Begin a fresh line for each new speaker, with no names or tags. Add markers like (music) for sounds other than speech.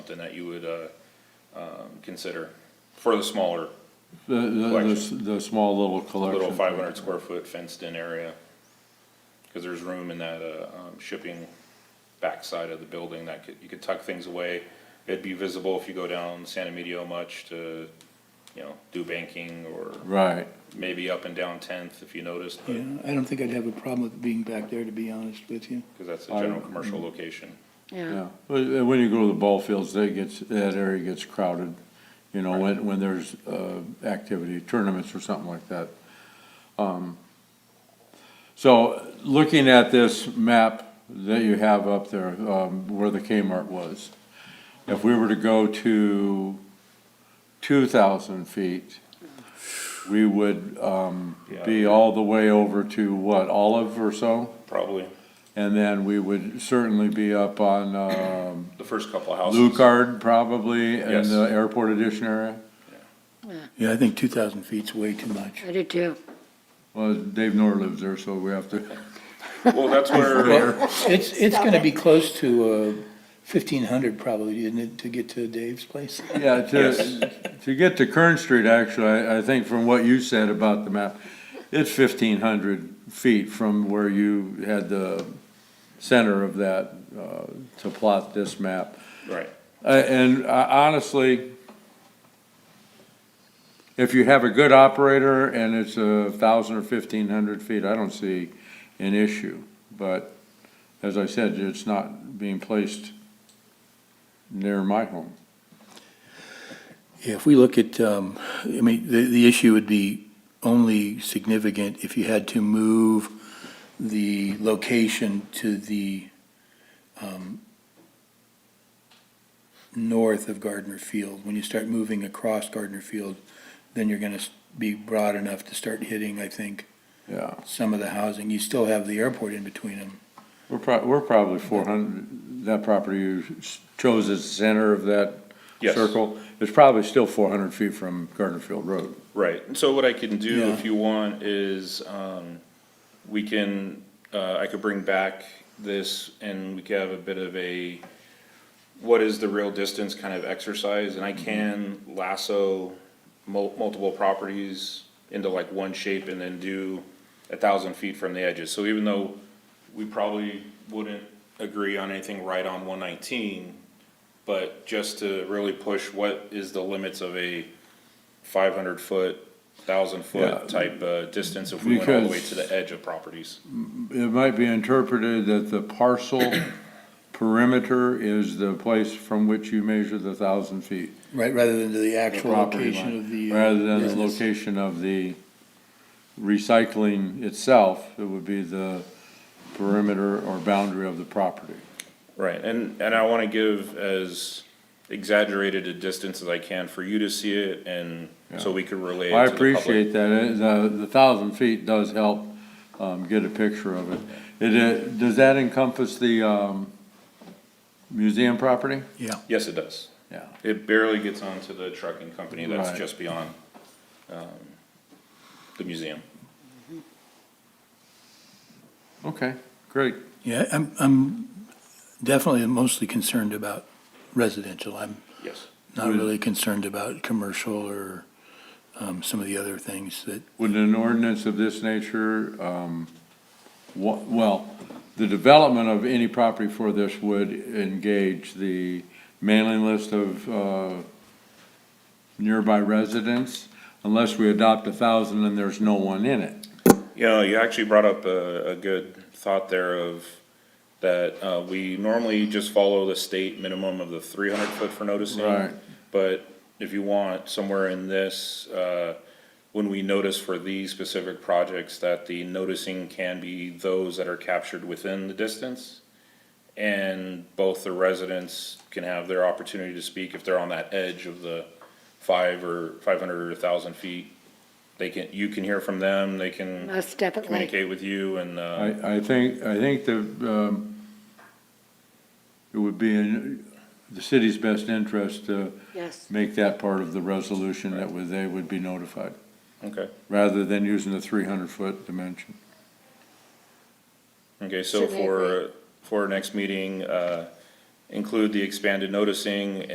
something that you would, uh, um, consider for the smaller,
The, the-
Collection.
the, the small little collection.
little five hundred square foot fenced in area. Cause there's room in that, uh, um, shipping backside of the building that could, you could tuck things away. It'd be visible if you go down San Emilio much to, you know, do banking or
Right,
maybe up and down Tenth if you noticed, but-
Yeah, I don't think I'd have a problem with being back there, to be honest with you.
cause that's a
I-
general commercial location.
yeah. But uh, when you go to the ball fields, they gets, that area gets crowded, you know, when, when there's, uh, activity, tournaments or something like that. Um, So, looking at this map that you have up there, um, where the Kmart was, if we were to go to two thousand feet, we would, um, be
Yeah.
all the way over to what, Olive or so?
Probably,
And then we would certainly be up on, um,
the first couple of houses.
Lucard probably in
Yes.
the airport edition area.
Yeah, I think two thousand feet's way too much.
I do too.
Well, Dave Nor lives there, so we have to,
Well, that's
(laughs)
where,
It's, it's gonna be close to, uh, fifteen hundred probably, isn't it, to get to Dave's place?
(laughs) yeah, to, (laughs) to get to Kern Street, actually, I, I think from what you said about the map, it's fifteen hundred feet from where you had the center of that, uh, to plot this map.
right,
Uh, And uh, honestly, if you have a good operator and it's a thousand or fifteen hundred feet, I don't see an issue. But as I said, it's not being placed near my home.
Yeah, if we look at, um, I mean, the, the issue would be only significant if you had to move the location to the, um, north of Gardner Field. When you start moving across Gardner Field, then you're gonna s- be broad enough to start hitting, I think,
Yeah,
some of the housing. You still have the airport in between them.
we're prob, we're probably four hundred, that property you s- chose as the center of that
Yes.
circle. It's probably still four hundred feet from Gardner Field Road.
right. And So what I can do, if
Yeah.
you want, is, um, we can, uh, I could bring back this and we could have a bit of a, what is the real distance kind of exercise, and I can lasso mul- multiple properties into like one shape and then do a thousand feet from the edges, so even though we probably wouldn't agree on anything right on one nineteen, but just to really push what is the limits of a five hundred foot, thousand
Yeah.
foot type, uh, distance if we went all the way
Because-
to the edge of properties.
it might be interpreted that the
(coughs)
parcel perimeter is the place from which you measure the thousand feet.
Right, rather than to the actual
property
location
line,
of the. uh,
Rather than the
business.
location of the recycling itself, it would be the perimeter or boundary of the property.
Right, and, and I wanna give as exaggerated a distance as I can for you to see it and so we could relay it to
I
the public.
appreciate that, It- the, the thousand feet does help, um, get a picture of it. It, uh, does that encompass the, um, museum property?
Yeah.
Yes, it does.
Yeah.
It barely gets onto the trucking company that's
Right.
just beyond, um, the museum.
Okay, great.
Yeah, I'm, I'm definitely mostly concerned about residential. I'm
Yes.
not
Would-
really concerned about commercial or um, some of the other things that,
Would an ordinance of this nature, um, wha- well, the development of any property for this would engage the mailing list of, uh, nearby residents, unless we adopt a thousand and there's no one in it.
You know, you actually brought up a, a good thought there of that, uh, we normally just follow the state minimum of the three hundred foot for noticing.
Right.
But if you want, somewhere in this, uh, when we notice for these specific projects, that the noticing can be those that are captured within the distance. And both the residents can have their opportunity to speak if they're on that edge of the five or five hundred or thousand feet. They can, you can hear from them, they can
Most definitely.
communicate with you and, uh,
I, I think, I think the, um, it would be in the city's best interest to
Yes.
make that part of the resolution that would, they would be notified,
okay.
rather than using the three hundred foot dimension.
Okay, so
Should we
for, for our next meeting, uh, include the expanded noticing